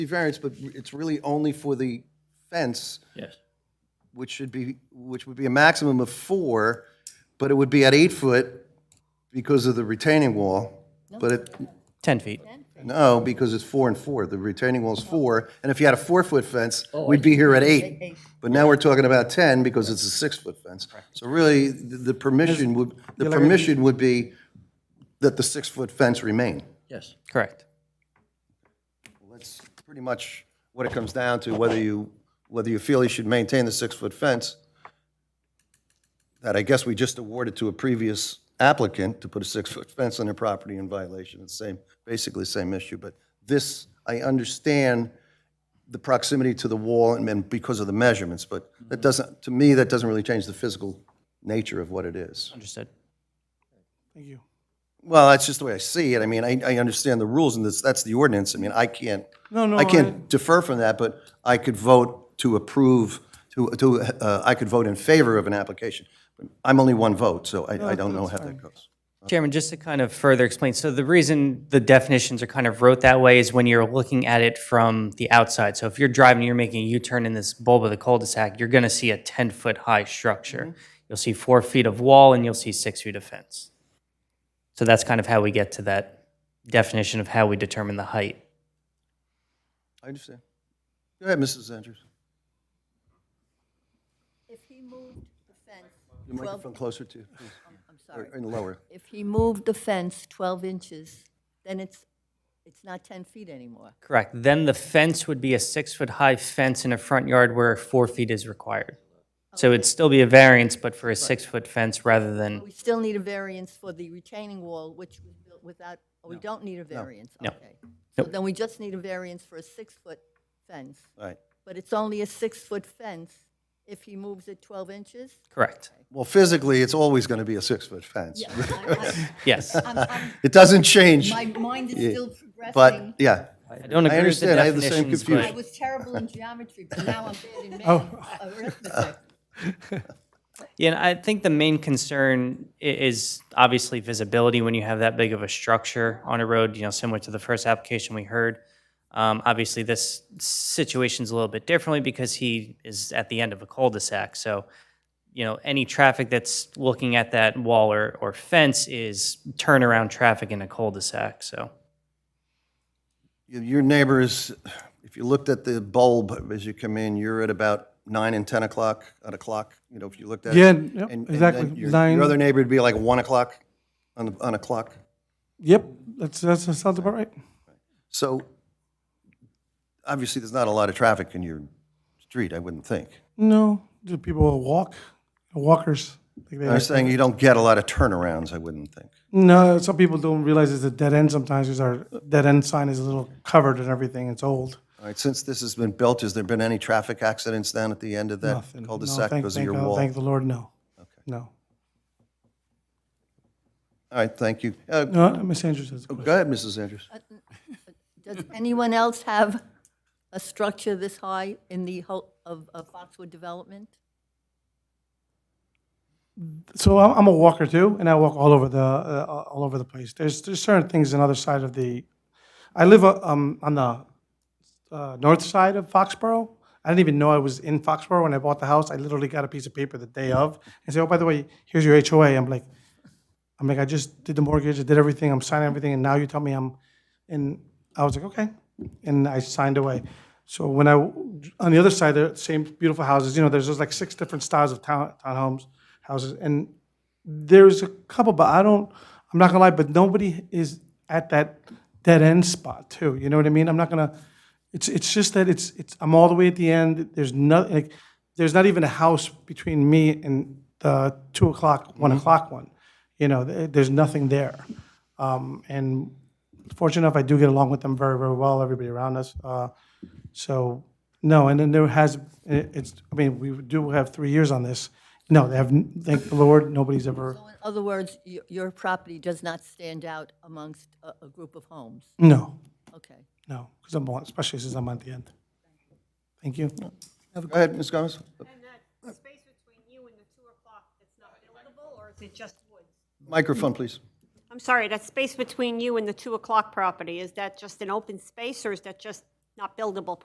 the variance, but it's really only for the fence, Yes. which should be, which would be a maximum of four, but it would be at eight foot because of the retaining wall. But it, 10 feet. no, because it's four and four. The retaining wall's four, and if you had a four-foot fence, we'd be here at Oh, eight. But now we're talking about 10 because it's a six-foot fence. So really, the the permission would, the permission would be that the six-foot fence remain. Yes. Correct. That's pretty much what it comes down to, whether you, whether you feel you should maintain the six-foot fence that I guess we just awarded to a previous applicant to put a six-foot fence on their property in violation. It's the same, basically the same issue. But this, I understand the proximity to the wall and then because of the measurements, but that doesn't, to me, that doesn't really change the physical nature of what it is. Understood. Thank you. Well, that's just the way I see it. I mean, I, I understand the rules and this, that's the ordinance. I mean, I can't, No, no, I can't defer from that, but I could vote to approve, to, to, uh, I could vote in favor of an application. But I'm only one vote, so I, I don't know how that goes. Chairman, just to kind of further explain, so the reason the definitions are kind of wrote that way is when you're looking at it from the outside. So if you're driving, you're making a U-turn in this bulb of the cul-de-sac, you're going to see a 10-foot high structure. You'll see four feet of wall and you'll see six feet of fence. So that's kind of how we get to that definition of how we determine the height. I understand. Go ahead, Mrs. Andrews. If he moved the fence, The microphone closer to, Oh, I'm or sorry, and lower. if he moved the fence 12 inches, then it's, it's not 10 feet anymore. Correct. Then the fence would be a six-foot-high fence in a front yard where four feet is required. So it'd still be a variance, but for a six-foot fence rather than, We still need a variance for the retaining wall, which was built without, oh, we don't need a variance, No. okay. So then we just need a variance for a six-foot fence, All right. but it's only a six-foot fence if he moves it 12 inches? correct. Well, physically, it's always going to be a six-foot fence. Yes. It doesn't change, My mind is still but, progressing. yeah. I don't I agree with the understand. I have the same definitions, confusion. I but was terrible in geometry, but now I'm bad in math, arithmetic. yeah, and I think the main concern i- is obviously visibility when you have that big of a structure on a road, you know, similar to the first application we heard. Um, obviously, this situation's a little bit differently because he is at the end of a cul-de-sac, so, you know, any traffic that's looking at that wall or, or fence is turnaround traffic in a cul-de-sac, so. Y- Your neighbors, if you looked at the bulb as you come in, you're at about nine and 10 o'clock on a clock, you know, if you looked at it. Yeah, And- yep, and then exactly. your- Your Nine- other neighbor would be like 1 o'clock on, the- on a clock. Yep, that's, that's, that sounds about right. So obviously, there's not a lot of traffic in your street, I wouldn't think. No, do people walk, walkers? like they I'm like- saying you don't get a lot of turnarounds, I wouldn't think. No, some people don't realize it's a dead end sometimes because our dead end sign is a little covered and everything. It's old. All right, since this has been built, has there been any traffic accidents down at the end of that Nothing. No, cul-de-sac thank- because of thank your God- wall? Thank the Lord, no. No. All right, thank you. Uh, No, Ms. Andrews has a question. Go ahead, Mrs. Andrews. Does anyone else have a structure this high in the whole of of Foxwood development? So I'm, I'm a walker too, and I walk all over the uh, all over the place. There's there's certain things on the other side of the. I live uh, um, on the uh, north side of Foxborough. I didn't even know I was in Foxborough when I bought the house. I literally got a piece of paper the day of and say, "Oh, by the way, here's your HOA." I'm like, I'm like, I just did the mortgage, I did everything, I'm signing everything, and now you tell me I'm, and I was like, okay, and I signed away. So when I, on the other side, the same beautiful houses, you know, there's just like six different styles of town townhomes, houses, and there's a couple, but I don't, I'm not gonna lie, but nobody is at that dead end spot too. You know what I mean? I'm not gonna. It's it's just that it's it's I'm all the way at the end. There's nothing. Like, there's not even a house between me and the two o'clock, one o'clock one. You know, th- there's nothing there. Um, and fortunate enough, I do get along with them very very well. Everybody around us. Uh, so no, and then there has it- it's. I mean, we do have three years on this. No, they have. n- Thank the Lord, nobody's ever. In other words, y- your property does not stand out amongst a a group of homes? No, Okay. no, because I'm on, especially since I'm at the end. Thank you. Go ahead, Ms. Gomez. And that space between you and the two o'clock, that's not buildable, or is it just woods? Microphone, please. I'm sorry, that space between you and the two o'clock property, is that just an open space, or is that just not buildable